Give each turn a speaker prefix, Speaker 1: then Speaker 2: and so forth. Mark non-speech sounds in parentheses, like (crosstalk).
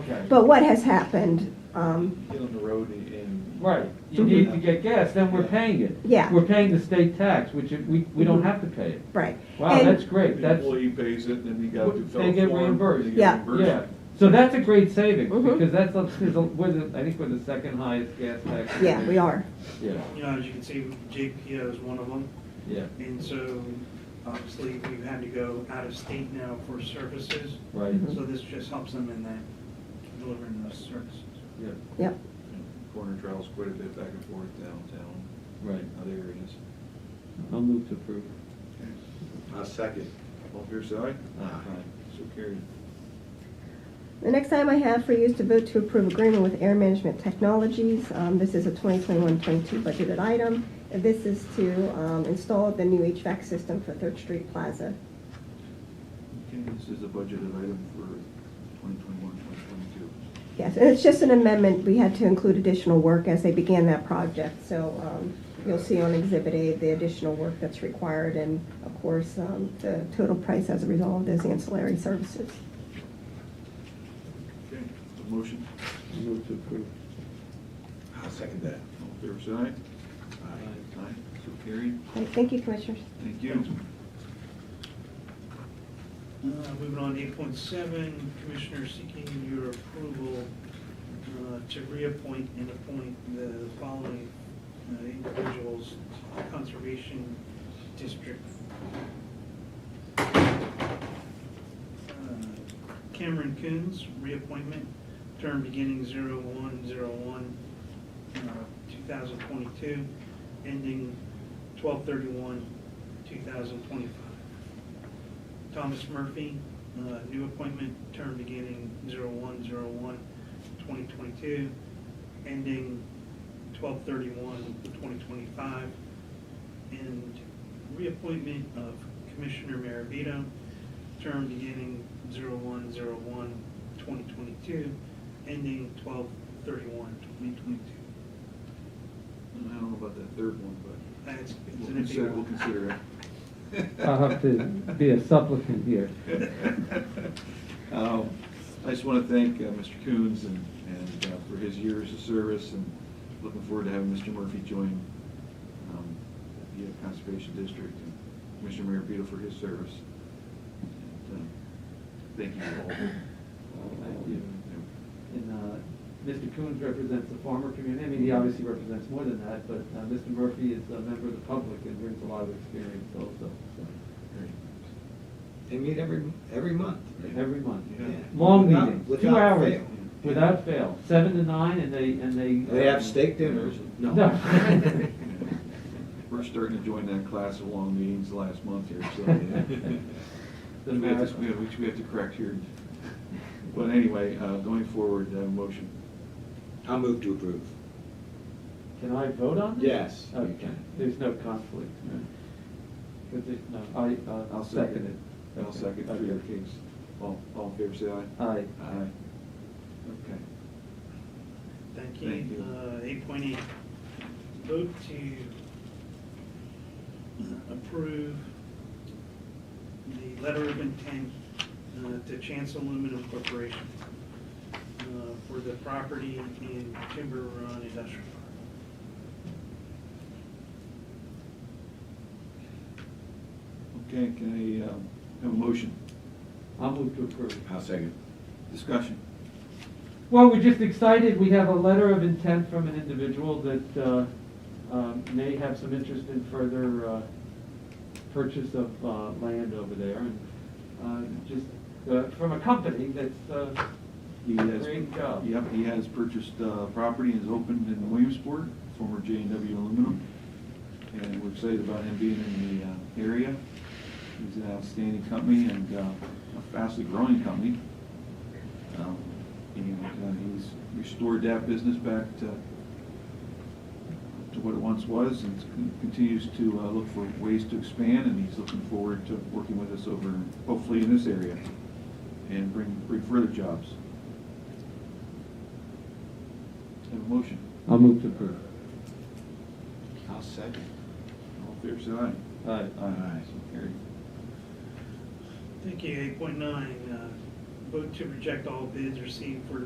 Speaker 1: Gotcha.
Speaker 2: But what has happened, um,
Speaker 1: Get on the road and.
Speaker 3: Right, you need to get gas, then we're paying it.
Speaker 2: Yeah.
Speaker 3: We're paying the state tax, which it- we, we don't have to pay it.
Speaker 2: right.
Speaker 3: Wow,
Speaker 2: And-
Speaker 3: that's great,
Speaker 1: The
Speaker 3: that's,
Speaker 1: employee pays it, and then you got to. fill
Speaker 3: They
Speaker 1: a
Speaker 3: get
Speaker 1: form,
Speaker 3: reimbursed.
Speaker 1: they get
Speaker 2: Yeah.
Speaker 1: reimbursed.
Speaker 3: yeah. So that's a great savings,
Speaker 2: Mhm.
Speaker 3: because that's, up to the- we're the, I think we're the second highest gas tax. in the
Speaker 2: Yeah, we
Speaker 3: nation.
Speaker 2: are.
Speaker 3: Yeah,
Speaker 4: You know, as you can see, JPO is one of them,
Speaker 3: yeah,
Speaker 4: and so obviously we've had to go out of state now for services,
Speaker 3: right,
Speaker 2: Mm-hmm.
Speaker 4: so this just helps them in that, delivering those services.
Speaker 3: yeah,
Speaker 2: Yep.
Speaker 1: Corner travels quite a bit back and forth downtown,
Speaker 3: right.
Speaker 1: other areas.
Speaker 3: I'll move to approve.
Speaker 1: A second. All fair side?
Speaker 3: Aye.
Speaker 1: So carried.
Speaker 2: The next item I have for you is to vote to approve agreement with Air Management Technologies. Um, This is a 2021-22 budgeted item. This is to um, install the new HVAC system for Third Street Plaza.
Speaker 1: Okay, this is a budgeted item for 2021, 2022.
Speaker 2: Yes, and it's just an amendment. We had to include additional work as they began that project. So um, you'll see on Exhibit A the additional work that's required and, of course, um, the total price as a result of those ancillary services.
Speaker 1: Okay, a motion?
Speaker 3: I'll move to approve.
Speaker 1: I'll second that. All fair side? Aye. Aye, so carried.
Speaker 2: Great, Thank you, Commissioners.
Speaker 1: Thank you.
Speaker 4: Uh, Moving on to eight point seven, Commissioner seeking your approval uh, to reappoint and appoint the following uh, individuals to the Conservation District. Uh, Cameron Coons, reappointment, term beginning 0101, uh, two thousand twenty-two, ending twelve thirty-one, two thousand twenty-five. Thomas Murphy, uh, new appointment, term beginning 01/01/2022, ending 12/31/2025, and reappointment of Commissioner Maravito, term beginning 01/01/2022, ending 12/31/2022.
Speaker 1: I don't know about that third one, but
Speaker 4: That's- it's
Speaker 1: we'll
Speaker 4: an iffy
Speaker 1: consider, we'll
Speaker 4: one.
Speaker 1: consider it.
Speaker 3: (laughs) I'll have to be a supplicant here.
Speaker 1: (laughs) Um, I just want to thank uh, Mr. Coons and, and uh, for his years of service and looking forward to having Mr. Murphy join um, the Conservation District and Commissioner Maravito for his service. And, um, Thank you all.
Speaker 3: Thank you. And uh, Mr. Coons represents the farmer community, I mean, he obviously represents more than that, but uh, Mr. Murphy is a member of the public and brings a lot of experience also, so,
Speaker 5: They meet every, every month. (laughs) right?
Speaker 3: every month.
Speaker 1: Yeah.
Speaker 3: Long
Speaker 5: Without-
Speaker 3: meetings, two
Speaker 5: without
Speaker 3: hours,
Speaker 5: fail.
Speaker 3: without fail, seven to nine, and they, and they. um,
Speaker 5: They have steak dinners?
Speaker 3: No.
Speaker 1: We're starting to join that class of long meetings last month here, so. Which we have to- we have- Which we have to correct here. But anyway, uh, going forward, uh, motion.
Speaker 5: I'll move to approve.
Speaker 3: Can I vote on this?
Speaker 5: Yes, you
Speaker 3: Okay,
Speaker 5: can.
Speaker 3: there's no conflict. Because it, no, I, uh, I'll second it.
Speaker 1: I'll second for
Speaker 3: Okay.
Speaker 1: your case. All, all in favor, say aye.
Speaker 3: Aye.
Speaker 1: Aye. Okay.
Speaker 4: Thank you. Uh,
Speaker 1: Thank you.
Speaker 4: Eight point eight, vote to uh, approve the letter of intent uh, to Chancellor Aluminum Corporation uh, for the property in Timber Run Industrial Park.
Speaker 1: Okay, can I, um, have a motion?
Speaker 3: I'll move to approve.
Speaker 5: I'll second.
Speaker 1: Discussion.
Speaker 3: Well, we're just excited. We have a letter of intent from an individual that uh, um, may have some interest in further uh, purchase of uh, land over there. and uh, Just uh, from a company that's, uh,
Speaker 1: He has-
Speaker 3: Great job.
Speaker 1: Yep, he has purchased, uh, property and has opened in Williamsport, former J and W Aluminum. And we're excited about him being in the, uh, area. He's an outstanding company and, uh, a fastly growing company. Um, And, uh, he's restored that business back to, to what it once was and con- continues to, uh, look for ways to expand and he's looking forward to working with us over, hopefully in this area and bring, bring further jobs. Have a motion.
Speaker 3: I'll move to approve.
Speaker 5: I'll second.
Speaker 1: All fair side?
Speaker 3: Aye.
Speaker 1: Aye. So carried.
Speaker 4: uh, Thank you. Eight point nine, vote to reject all bids received for